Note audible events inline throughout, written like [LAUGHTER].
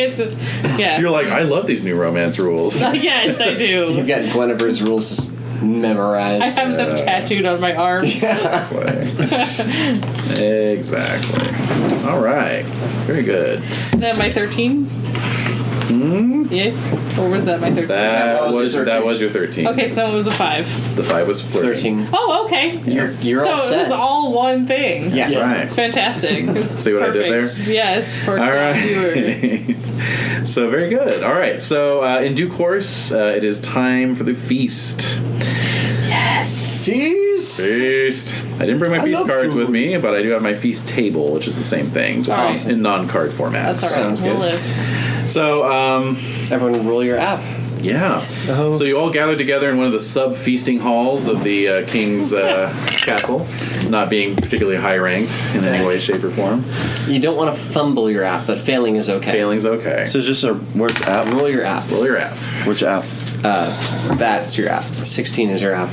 It's a, yeah. [LAUGHS] Uh, You're like, I love these new romance rules. Oh, [LAUGHS] yes, I do. [LAUGHS] You've got Guinevere's rules memorized. I have them tattooed on my arm. exactly. All right. Very good. That my thirteen. Yes, or was that my thirteen? That was your was that 13. was your thirteen. Okay, so it was a five. The five was flirting. Thirteen. Oh, okay. You're- you're so all it was set. all one thing. Yeah. That's right. Fantastic. It's See what I did perfect. Yes. For All [LAUGHS] tattooer. right. [LAUGHS] so very good. All right. So uh, in due course, uh, it is time for the feast. Yes. Jeez. Feast. I didn't bring my I feast love cards with food. Oh. me, but I do have my feast table, which is the same thing, just Awesome. in non-card format. That's all right. Sounds We'll good. live. So um, Everyone, roll your app. yeah. Oh. So you all gathered together in one of the sub feasting halls of the uh, king's uh, castle, not being particularly high ranked in any way, shape, or form. You don't want to fumble your app, but failing is okay. Failing's okay. So it's just a where's app? Roll your app. Roll your app. Which app? That's your app. Sixteen is your app.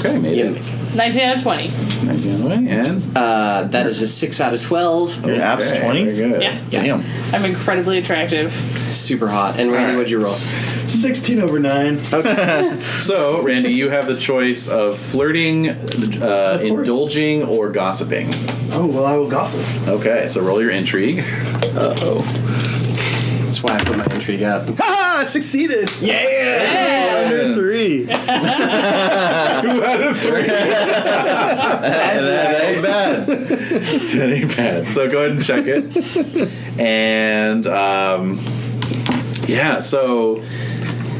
Okay, made Yep. it. Nineteen out of twenty. And Uh, that is a six out of twelve. Your app's Okay, 20? very good. Yeah. Damn. I'm incredibly attractive. Super hot. And Randy, All right. what'd you roll? 16 over 9. So, Randy, you have the choice of flirting, uh, course. indulging, or gossiping. Oh, well, I will gossip. Okay, so roll your intrigue. That's why I put my intrigue up. Ah, succeeded. Yeah. Under three. Ain't bad. [LAUGHS] It's any bad. So go ahead and check it. and um, yeah, so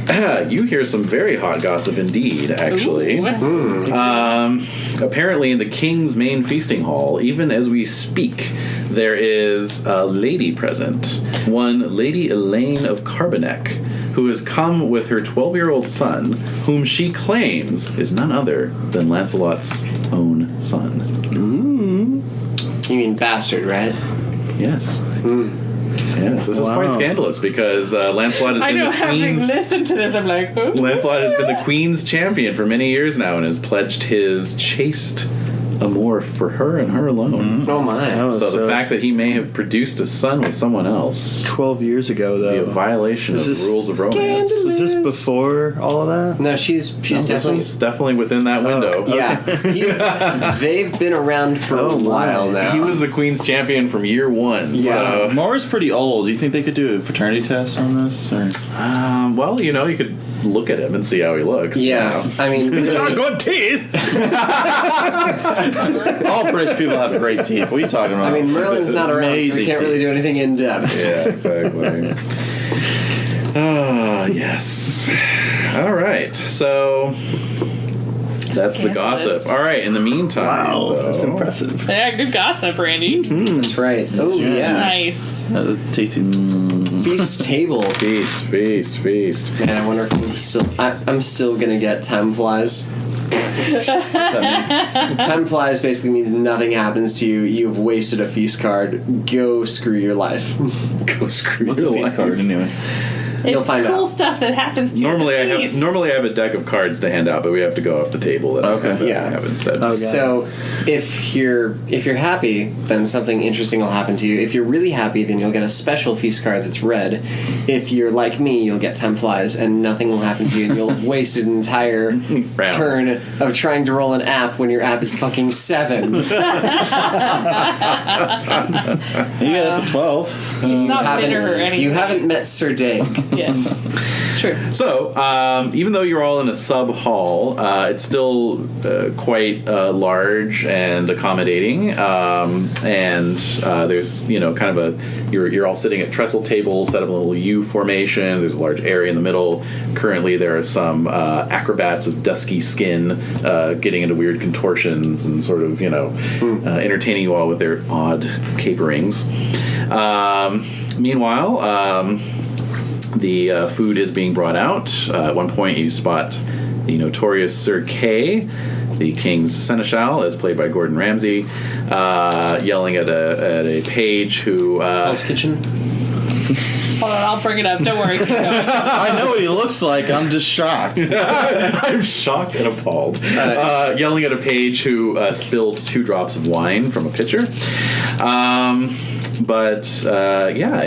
[CLEARS THROAT] you hear some very hot gossip indeed. Actually, Ooh. Um, apparently, in the king's main feasting hall, even as we speak, there is a lady present. One Lady Elaine of Carbonek, who has come with her 12 year old son, whom she claims is none other than Lancelot's own son. You mean bastard, right? Yes. Yes, Hmm. this is quite scandalous because uh, Lancelot has I been know. the Having queen's. listened to this, I'm like, ooh. Lancelot has been the Queen's champion for many years now and has pledged his chaste amour for her and her alone. Oh my. Oh, So, so the fact that he may have produced a son with someone else twelve years ago be a though. violation of This the is rules of romance. Was this before all of that? No, she's This she's definitely. was definitely within that window. Yeah, He's- they've been around [LAUGHS] for a Oh, my. while now. He was the Queen's champion from year one. Wow. So, Mara's Uh, pretty old. Do you think they could do a fraternity test on this? Or? um, well, you know, you could look at him and see how he looks. yeah, I mean, really, good teeth. [LAUGHS] all British people have great teeth. What are you talking I about? mean, Merlin's not around, so we Amazing can't really do anything in depth. [LAUGHS] Yeah, exactly. Ah, yes. All right. So that's the gossip. Scandalous. All right. In the meantime, Wow, that's though- impressive. Yeah, good gossip, Randy. That's right. Oh yeah, Nice. That's tasty. Mm. [LAUGHS] feast table. Feast, feast, feast. Man, I wonder if I'm still. I, I'm still gonna get time flies. time flies basically means nothing happens to you. You have wasted a feast card. Go screw your life. [LAUGHS] [LAUGHS] Go screw What's a your feast life. card anyway? You'll it's find cool out. stuff that happens to you. Normally, I have Feast. normally I have a deck of cards to hand out, but we have to go off the table. That Okay. Oh, I have, that I Yeah. have instead. So if you're if you're happy, then something interesting will happen to you. If you're really happy, then you'll get a special feast card that's red. If you're like me, you'll get ten flies, and nothing will happen to you, and you'll have wasted an entire turn of trying to roll an app when your app is fucking seven. you You got Uh, up to twelve. He's not haven't- bitter or anything. you haven't met Sir Dave. Yes. [LAUGHS] It's true. So, um, even though you're all in a sub hall, uh, it's still uh, quite uh, large and accommodating. Um, and uh, there's, you know, kind of a you're, you're all sitting at trestle tables, set up in a little U formation. There's a large area in the middle. Currently, there are some uh, acrobats of dusky skin uh, getting into weird contortions and sort of, you know, uh, entertaining you all with their odd caperings. Um, meanwhile, um, the uh, food is being brought out. Uh, at one point, you spot the notorious Sir Kay, the king's seneschal, as played by Gordon Ramsay, uh, yelling at a, at a page who. Uh, [LAUGHS] Hell's Kitchen. Hold on, I'll bring it up. Don't worry. Keep going. I know what he looks like. I'm just shocked. I'm shocked and appalled. Uh, yelling at a page who uh, spilled two drops of wine from a pitcher. Um, but uh, yeah,